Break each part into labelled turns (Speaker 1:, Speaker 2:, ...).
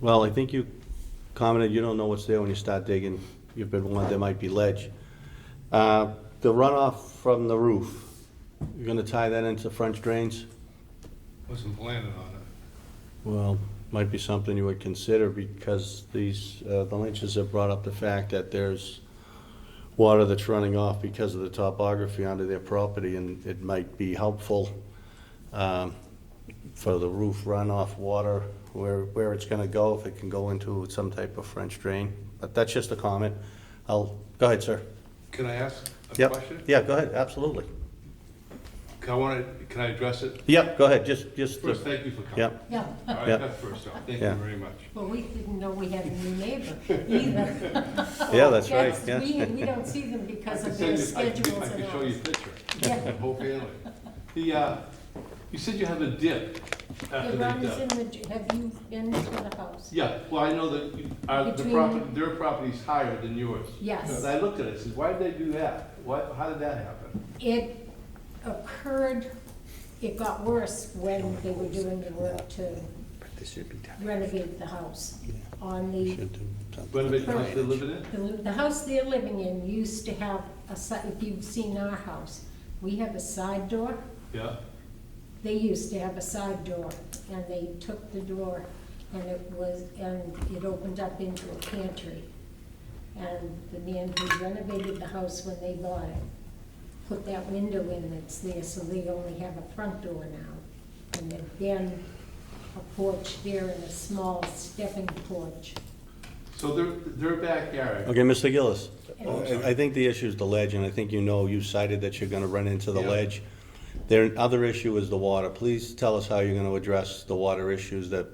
Speaker 1: Well, I think you commented, you don't know what's there when you start digging. You've been warned there might be ledge. Uh, The runoff from the roof, you're gonna tie that into French drains?
Speaker 2: Wasn't planning on it.
Speaker 1: Well, might be something you would consider because these, uh, the Lynches have brought up the fact that there's water that's running off because of the topography onto their property and it might be helpful um, for the roof runoff water, where, where it's gonna go, if it can go into some type of French drain. But that's just a comment. I'll, go ahead, sir.
Speaker 2: Can I ask a
Speaker 1: Yep.
Speaker 2: question?
Speaker 1: Yeah, go ahead, absolutely.
Speaker 2: Can I want to, can I address it?
Speaker 1: Yep, go ahead, just, just,
Speaker 2: First, thank you for coming.
Speaker 1: yep,
Speaker 3: Yeah,
Speaker 2: All right,
Speaker 1: Yeah.
Speaker 2: that's first off, thank
Speaker 1: Yeah.
Speaker 2: you very much.
Speaker 3: well, we didn't know we had a new neighbor either.
Speaker 1: yeah, Oh, that's right,
Speaker 3: That's-
Speaker 1: yeah.
Speaker 3: We, we don't see them
Speaker 2: I
Speaker 3: because
Speaker 2: can
Speaker 3: of their
Speaker 2: send you- I can-
Speaker 3: schedules
Speaker 2: I
Speaker 3: and
Speaker 2: can show you a
Speaker 3: ours.
Speaker 2: picture,
Speaker 3: Yeah,
Speaker 2: the whole family. The, uh, you said you have a dip after
Speaker 3: the
Speaker 2: they uh,
Speaker 3: ground is in
Speaker 2: dug.
Speaker 3: the, have you been to the house?
Speaker 2: Yeah, well, I know that, you- uh, the
Speaker 3: Between-
Speaker 2: property, their property's higher than yours.
Speaker 3: Yes.
Speaker 2: And I looked at it, I said, why did they do that? What, how did that happen?
Speaker 3: It occurred, it got worse when they were doing the work to
Speaker 1: This should be done.
Speaker 3: renovate the house.
Speaker 1: Yeah.
Speaker 3: On the
Speaker 1: Should do something.
Speaker 2: When they, how they live in it?
Speaker 3: The, the house they're living in used to have a side, if you've seen our house, we have a side door.
Speaker 2: Yeah,
Speaker 3: They used to have a side door, and they took the door, and it was, and it opened up into a pantry. And the man who renovated the house when they bought it, put that window in that's there, so they only have a front door now. And there's been a porch there and a small stepping porch.
Speaker 2: so their, their backyard,
Speaker 1: Okay, Mr. Gillis,
Speaker 3: Oh,
Speaker 1: I I think the issue is the ledge, and I think you know, you cited that you're gonna run into the
Speaker 2: Yeah.
Speaker 1: ledge. Their other issue is the water. Please tell us how you're gonna address the water issues that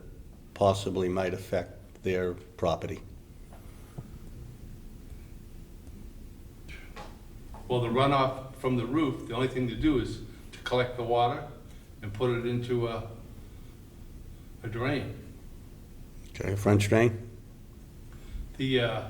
Speaker 1: possibly might affect their property.
Speaker 2: well, the runoff from the roof, the only thing to do is to collect the water and put it into a, a drain.
Speaker 1: Okay. French drain?
Speaker 2: The, uh,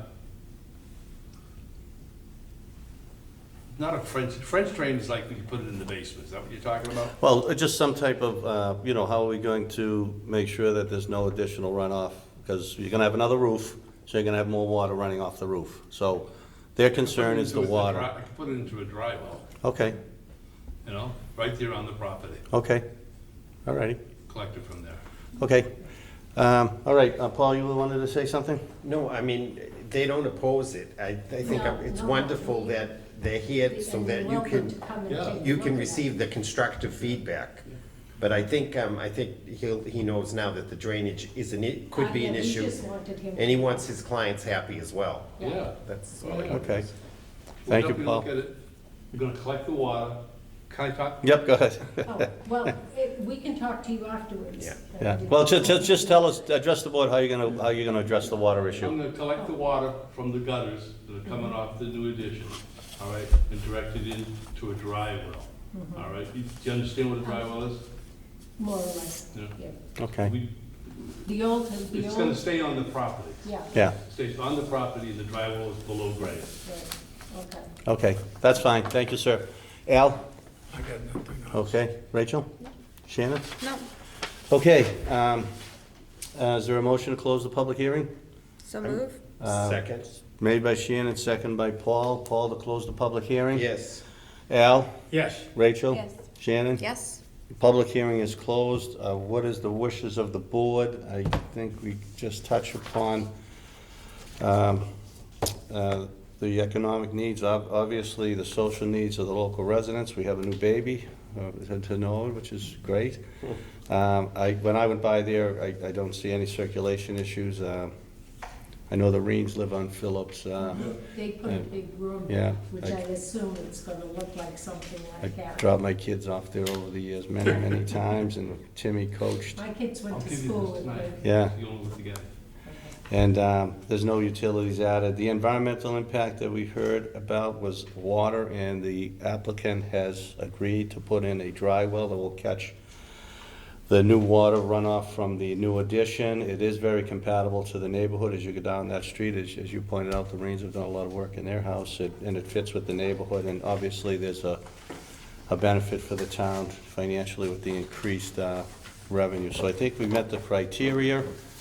Speaker 2: not a French, French drain is like when you put it in the basement, is that what you're talking about?
Speaker 1: Well, uh, just some type of, uh, you know, how are we going to make sure that there's no additional runoff? Because you're gonna have another roof, so you're gonna have more water running off the roof. So their concern is the
Speaker 2: Put it into a dri-
Speaker 1: water.
Speaker 2: I could put it into a dry well,
Speaker 1: Okay,
Speaker 2: you know, right there on the property,
Speaker 1: okay, all righty.
Speaker 2: collect it from there.
Speaker 1: Okay. Um, All right, uh, Paul, you wanted to say something?
Speaker 4: No, I mean, they don't oppose it. I, I think
Speaker 3: No,
Speaker 4: it's
Speaker 3: no.
Speaker 4: wonderful that they're here so
Speaker 3: And
Speaker 4: that
Speaker 3: you're
Speaker 4: you
Speaker 3: welcome to
Speaker 4: can,
Speaker 3: come and
Speaker 2: yeah,
Speaker 3: take a
Speaker 4: you
Speaker 3: look
Speaker 4: can
Speaker 3: at it.
Speaker 4: receive the constructive feedback. But I think, um, I think he'll, he knows now that the drainage is an, i- could be an
Speaker 3: Uh, yeah, we
Speaker 4: issue.
Speaker 3: just wanted him-
Speaker 4: And he wants his clients happy as well.
Speaker 3: Yeah.
Speaker 2: Yeah.
Speaker 4: That's
Speaker 2: Oh,
Speaker 4: all I
Speaker 2: yeah.
Speaker 4: got.
Speaker 1: Okay.
Speaker 2: We'll
Speaker 1: Thank you,
Speaker 2: definitely
Speaker 1: Paul.
Speaker 2: look at it. We're gonna collect the water, can I talk?
Speaker 1: Yep, go ahead.
Speaker 3: Oh, Well, it- we can talk to you afterwards.
Speaker 4: Yeah.
Speaker 3: but I
Speaker 1: Yeah.
Speaker 3: didn't-
Speaker 1: Well, just, just, just tell us, address the board, how you're gonna, how you're gonna address the water
Speaker 2: I'm
Speaker 1: issue.
Speaker 2: gonna collect the water from the gutters that are
Speaker 1: Mm-hmm.
Speaker 2: coming off the new addition, all right, and direct it into a dry well,
Speaker 1: Mm-hmm.
Speaker 2: all right? You- Do you understand what a dry well is?
Speaker 3: More or less,
Speaker 2: Yeah.
Speaker 3: yeah.
Speaker 1: Okay,
Speaker 2: We-
Speaker 3: The old, the
Speaker 2: It's gonna
Speaker 3: old,
Speaker 2: stay on the property.
Speaker 3: yeah, right,
Speaker 1: yeah,
Speaker 2: stays on the property and the drywall is below grade.
Speaker 3: okay.
Speaker 1: okay, that's fine, thank you, sir. Al?
Speaker 5: I got nothing else.
Speaker 1: Okay, Rachel? Shannon?
Speaker 6: No,
Speaker 1: Okay, um, uh, is there a motion to close the public hearing?
Speaker 6: so move.
Speaker 1: Uh,
Speaker 4: Second?
Speaker 1: Made by Shannon, second by Paul. Paul to close the public
Speaker 3: Um,
Speaker 1: hearing?
Speaker 4: Yes.
Speaker 1: Al?
Speaker 5: Yes.
Speaker 1: Rachel?
Speaker 6: Yes.
Speaker 1: Shannon?
Speaker 6: Yes,
Speaker 1: Public hearing is closed. Uh, What is the wishes of the board? I think we just touched upon um, uh, the economic needs, ob- obviously, the social needs of the local residents. We have a new baby uh, to- to know, which is great. Um, I, when I went by there, I I don't see any circulation issues. Um, I know the Reams live on Phillips. uh,
Speaker 3: They put a big room,
Speaker 1: Yeah,
Speaker 3: which
Speaker 1: I-
Speaker 3: I assume it's gonna look like something
Speaker 1: I
Speaker 3: like that.
Speaker 1: dropped my kids off there over the years many, many times, and Timmy coached.
Speaker 3: My kids
Speaker 2: I'll
Speaker 3: went to
Speaker 2: give you
Speaker 3: school
Speaker 2: this
Speaker 3: with
Speaker 2: tonight.
Speaker 3: me.
Speaker 1: Yeah.
Speaker 2: You don't look together.
Speaker 1: And um, there's no utilities added. The environmental impact that we heard about was water, and the applicant has agreed to put in a dry well that will catch the new water runoff from the new addition. It is very compatible to the neighborhood as you go down that street. As as you pointed out, the Marines have done a lot of work in their house, it- and it fits with the neighborhood. And obviously, there's a a benefit for the town financially with the increased uh, revenue. So I think we met the criteria.